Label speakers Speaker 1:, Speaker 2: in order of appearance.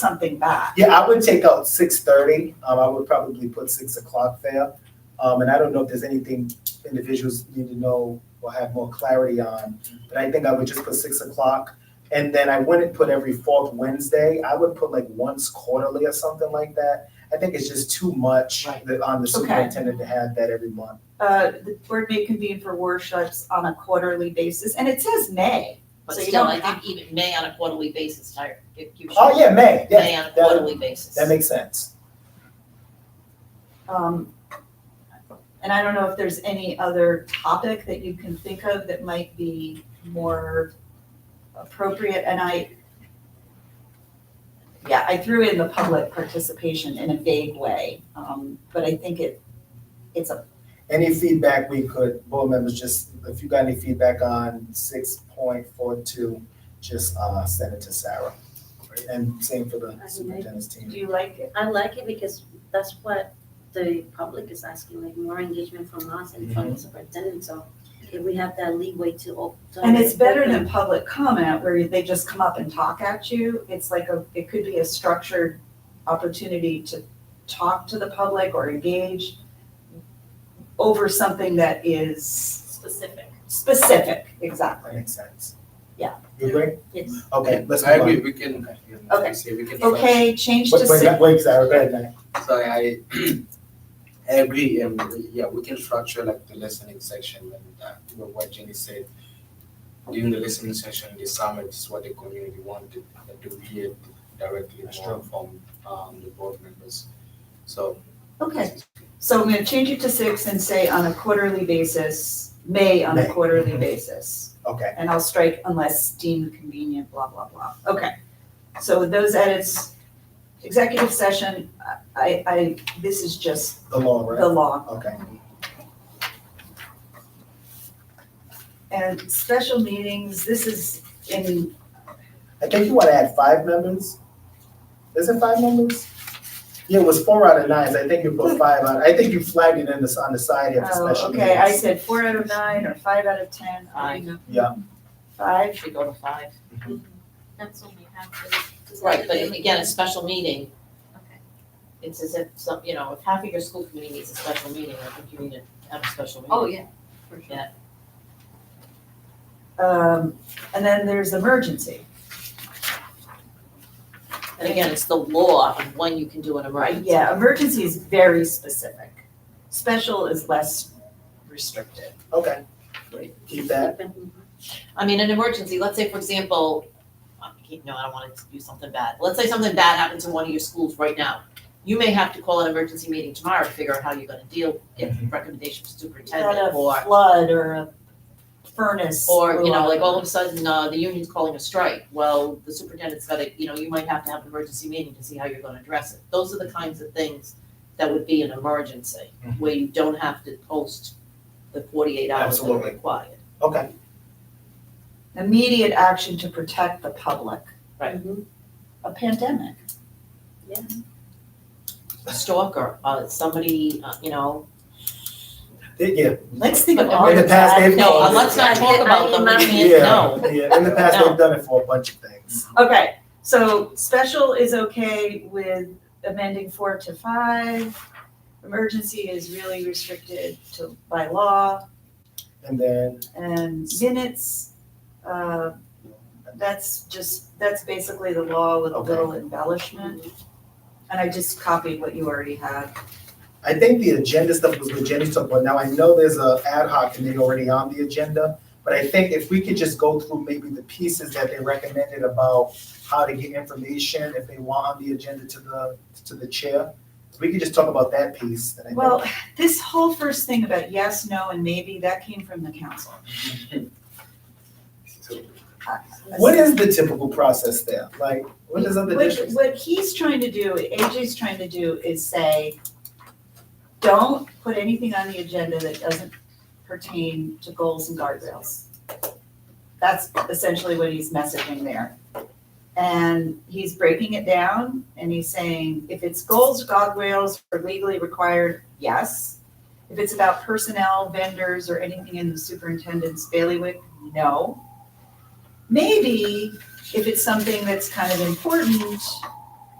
Speaker 1: something back.
Speaker 2: Yeah, I would take out six thirty, um, I would probably put six o'clock there. Um, and I don't know if there's anything individuals need to know or have more clarity on, but I think I would just put six o'clock. And then I wouldn't put every fourth Wednesday, I would put like once quarterly or something like that. I think it's just too much
Speaker 1: Right.
Speaker 2: that on the
Speaker 1: Okay.
Speaker 2: superintendent to have that every month.
Speaker 1: Uh, the board may convene for workshops on a quarterly basis, and it says May.
Speaker 3: But
Speaker 1: So you
Speaker 3: still,
Speaker 1: don't
Speaker 3: I
Speaker 1: have-
Speaker 3: think even May on a quarterly basis, hire, give, give.
Speaker 2: Oh, yeah, May, yeah,
Speaker 3: May on a
Speaker 2: that-
Speaker 3: quarterly basis.
Speaker 2: that makes sense.
Speaker 1: Um, and I don't know if there's any other topic that you can think of that might be more appropriate, and I, yeah, I threw in the public participation in a vague way, um, but I think it, it's a,
Speaker 2: Any feedback we could, board members, just, if you got any feedback on six point four two, just, uh, send it to Sarah. And same for the superintendent's
Speaker 1: do
Speaker 2: team.
Speaker 1: you like it?
Speaker 4: I like it because that's what the public is asking, like more engagement from us and
Speaker 3: Mm-hmm.
Speaker 4: from the superintendent, so if we have that leeway to op- to
Speaker 1: And it's better
Speaker 4: open-
Speaker 1: than public comment where they just come up and talk at you. It's like a, it could be a structured opportunity to talk to the public or engage over something that is
Speaker 4: Specific.
Speaker 1: specific, exactly.
Speaker 2: That makes sense.
Speaker 1: Yeah.
Speaker 2: You agree?
Speaker 4: Yes.
Speaker 2: Okay, let's
Speaker 5: I
Speaker 2: move on.
Speaker 5: agree, we can,
Speaker 1: Okay.
Speaker 5: see, we can.
Speaker 1: Okay, change to
Speaker 2: Wait, wait,
Speaker 1: six,
Speaker 2: wait, Sarah, go ahead, Nick.
Speaker 5: Sorry, I, I agree, and yeah, we can structure like the listening section and uh, you know, what Jenny said. During the listening session, the summit is what the community wanted, that to hear directly
Speaker 2: That's
Speaker 5: more from um the board members. So.
Speaker 1: okay. So I'm gonna change it to six and say on a quarterly basis, May on a
Speaker 2: May.
Speaker 1: quarterly basis.
Speaker 2: Okay,
Speaker 1: And I'll strike unless deemed convenient, blah, blah, blah. Okay. So with those edits, executive session, I, I, this is just
Speaker 2: the law,
Speaker 1: the
Speaker 2: right?
Speaker 1: law.
Speaker 2: Okay,
Speaker 1: And special meetings, this is in,
Speaker 2: I think you wanna add five members? Is it five members? Yeah, it was four out of nines, I think you put five on, I think you flagged it in the, on the side here for
Speaker 1: oh,
Speaker 2: special
Speaker 1: okay, I
Speaker 2: meetings.
Speaker 1: said four out of nine or five out of ten.
Speaker 3: Five.
Speaker 2: Yeah.
Speaker 1: Five,
Speaker 3: Actually go to five.
Speaker 4: That's when we have to.
Speaker 3: Right, but again, a special meeting.
Speaker 4: Okay.
Speaker 3: It's as if some, you know, if half of your school committee needs a special meeting, I think you need to have a special meeting.
Speaker 4: Oh, yeah, for sure.
Speaker 1: um, and then there's emergency.
Speaker 3: And again, it's the law of when you can do an emergency.
Speaker 1: Yeah, emergency is very specific. Special is less restricted.
Speaker 2: Okay, keep that.
Speaker 3: I mean, an emergency, let's say, for example, I can't- no, I don't want to do something bad. Let's say something bad happens in one of your schools right now. You may have to call an emergency meeting tomorrow to figure out how you're gonna deal, get recommendations from
Speaker 1: Not
Speaker 3: superintendent
Speaker 1: a
Speaker 3: or
Speaker 1: flood or a furnace.
Speaker 3: Or, you
Speaker 1: blew
Speaker 3: know,
Speaker 1: up.
Speaker 3: like all of a sudden, uh, the union's calling a strike, well, the superintendent's gotta, you know, you might have to have an emergency meeting to see how you're gonna address it. Those are the kinds of things that would be an emergency,
Speaker 2: Mhm.
Speaker 3: where you don't have to post the forty-eight hours that are
Speaker 2: Absolutely.
Speaker 3: required.
Speaker 2: Okay,
Speaker 1: Immediate action to protect the public,
Speaker 3: Right.
Speaker 1: a pandemic.
Speaker 3: A Stalker, uh, somebody, uh, you know,
Speaker 2: yeah.
Speaker 1: Let's think of
Speaker 3: But
Speaker 1: all
Speaker 3: in
Speaker 1: the
Speaker 3: the
Speaker 2: past,
Speaker 1: bad
Speaker 2: they've-
Speaker 3: no,
Speaker 2: uh,
Speaker 1: things.
Speaker 3: let's not talk about them, we can't,
Speaker 2: yeah,
Speaker 3: no.
Speaker 2: Yeah, in the past,
Speaker 3: No.
Speaker 2: they've done it for a bunch of things.
Speaker 1: Okay, so special is okay with amending four to five. Emergency is really restricted to, by law
Speaker 2: And then,
Speaker 1: and minutes. Uh, that's just, that's basically the law with a
Speaker 2: Okay.
Speaker 1: little embellishment. And I just copied what you already had.
Speaker 2: I think the agenda stuff was what Jenny talked about. Now, I know there's a ad hoc committee already on the agenda, but I think if we could just go through maybe the pieces that they recommended about how to get information, if they want on the agenda to the, to the chair, if we could just talk about that piece, then I think.
Speaker 1: Well, this whole first thing about yes, no, and maybe, that came from the council. Uh,
Speaker 2: What is the typical process there? Like, what does other
Speaker 1: What-
Speaker 2: districts?
Speaker 1: What he's trying to do, AJ's trying to do is say, don't put anything on the agenda that doesn't pertain to goals and guardrails. That's essentially what he's messaging there. And he's breaking it down and he's saying, if it's goals, guardrails are legally required, yes. If it's about personnel, vendors, or anything in the superintendent's bailiwick, no. Maybe if it's something that's kind of important,